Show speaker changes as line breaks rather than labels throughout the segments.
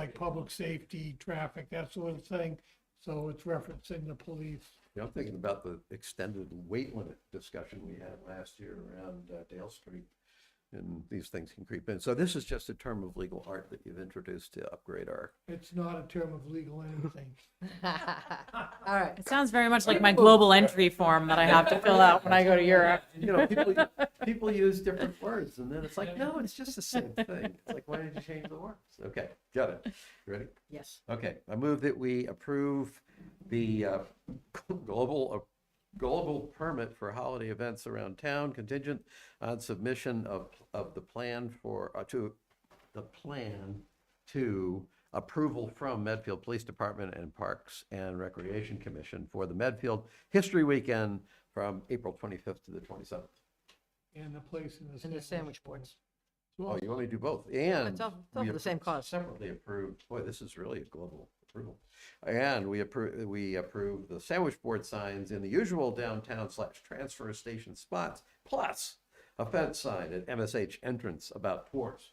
like public safety, traffic, that sort of thing. So it's referencing the police.
Yeah, I'm thinking about the extended weight limit discussion we had last year around uh, Dale Street. And these things can creep in. So this is just a term of legal art that you've introduced to upgrade our.
It's not a term of legal anything.
All right.
It sounds very much like my global entry form that I have to fill out when I go to Europe.
You know, people, people use different words and then it's like, no, it's just the same thing. It's like, why did you change the words? Okay, got it. You Ready?
Yes.
Okay, I move that we approve the uh, global, uh, global permit for holiday events around town contingent on submission of, of the plan for, uh, to, the plan to approval from Medfield Police Department and Parks and Recreation Commission for the Medfield History Weekend from April 25th to the 27th.
And the place in the.
And the sandwich boards.
Oh, you only do both, and.
It's all- it's all
we
for the same
appro-
cause.
Separately approved, boy, this is really a global approval. And we approve, we approve the sandwich board signs in the usual downtown slash transfer station spots, plus a fence sign at MSH entrance about tours.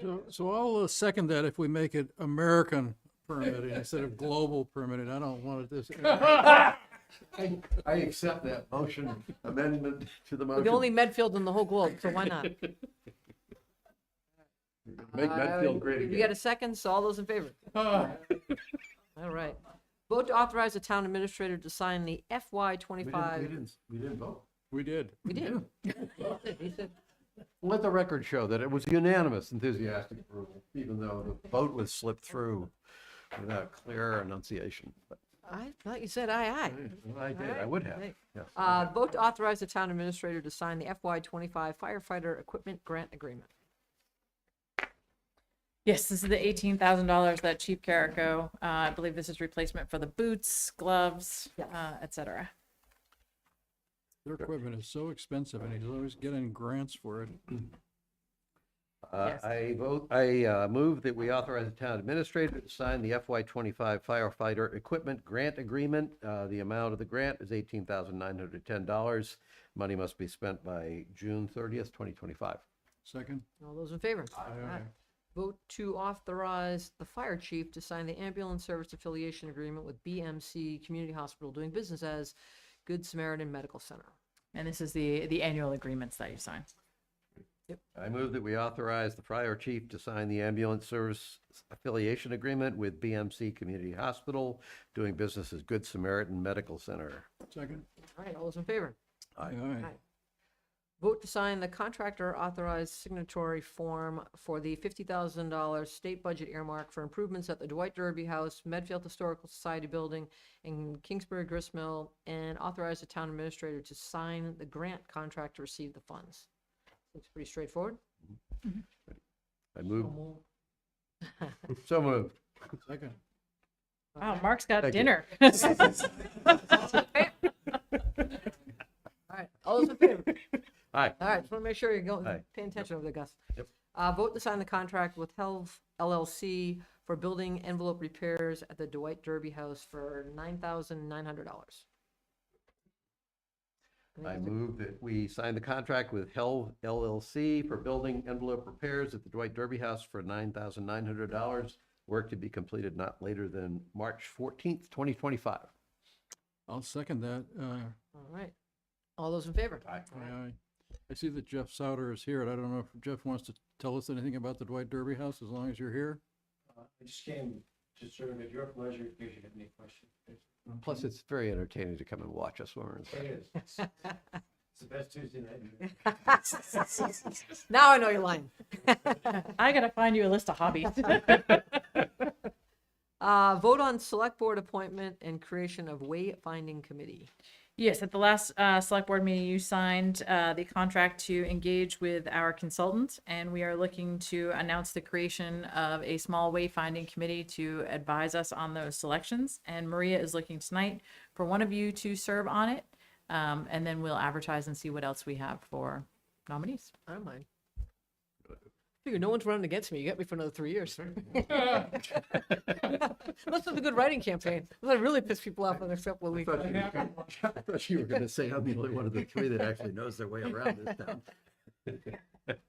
So, so I'll uh, second that if we make it American permitting instead of global permitting. I don't want it this.
I I accept that motion amendment to the
The only
motion.
Medfield in the whole globe, so why not?
Make Medfield
Uh,
great
You got
again.
a second? So all those in favor?
Ah,
All right. Vote to authorize the town administrator to sign the
We
FY
didn't, we
twenty-five.
didn't, we didn't vote.
We did.
We did. He said,
Let the record show that it was unanimous enthusiastic approval, even though the vote was slipped through without clear enunciation. But
I thought you said aye, aye.
I did, I would have, yes.
Uh, vote to authorize the town administrator to sign the FY twenty-five firefighter equipment grant agreement.
Yes, this is the eighteen thousand dollars that Cheap Carico. Uh, I believe this is replacement for the boots, gloves,
Yes.
uh, et cetera.
Their equipment is so expensive and he's always getting grants for it.
Uh,
Yes.
I vote, I uh, move that we authorize the town administrator to sign the FY twenty-five firefighter equipment grant agreement. Uh, The amount of the grant is eighteen thousand nine hundred ten dollars. Money must be spent by June thirtieth, twenty twenty-five.
Second?
All those in favor? Aye. Vote to authorize the fire chief to sign the ambulance service affiliation agreement with BMC Community Hospital doing business as Good Samaritan Medical Center.
And this is the, the annual agreements that you sign.
I move that we authorize the fire chief to sign the ambulance service affiliation agreement with BMC Community Hospital, doing business as Good Samaritan Medical Center.
Second?
All right, all those in favor?
Aye.
Aye.
Aye. Vote to sign the contractor authorized signatory form for the $50,000 state budget earmark for improvements at the Dwight Derby House, Medfield Historical Society Building, and Kingsbury Gristmill, and authorize the town administrator to sign the grant contract to receive the funds. Looks pretty straightforward.
I move,
so moved.
so moved.
Second.
Wow, Mark's got
Thank you.
dinner.
All right, all those in favor?
Aye.
All right, just want to make sure you're going,
Aye.
paying attention over there, Gus.
Yep.
Uh, vote to sign the contract with Health LLC for building envelope repairs at the Dwight Derby House for nine thousand nine hundred dollars.
I move that we sign the contract with Hell LLC for building envelope repairs at the Dwight Derby House for nine thousand nine hundred dollars. Work to be completed not later than March fourteenth, twenty twenty-five.
I'll second that. Uh,
All right, all those in favor?
Aye.
All right.
aye, aye. I see that Jeff Souter is here and I don't know if Jeff wants to tell us anything about the Dwight Derby House as long as you're here.
I just came to serve at your pleasure in case you have any questions.
Plus, it's very entertaining to come and watch us when we're in.
It is. It's it's the best Tuesday night.
Now I know you're lying.
I gotta find you a list of hobbies.
Uh, vote on select board appointment and creation of wayfinding committee.
Yes, at the last uh, select board meeting, you signed uh, the contract to engage with our consultant, and we are looking to announce the creation of a small wayfinding committee to advise us on those selections. And Maria is looking tonight for one of you to serve on it, um, and then we'll advertise and see what else we have for nominees.
I don't mind. Figure no one's running against me. You got me for another three years. Unless it's a good writing campaign. Unless I really piss people off on their step week.
I thought you were gonna say I'm the only one of the three that actually knows their way around this town.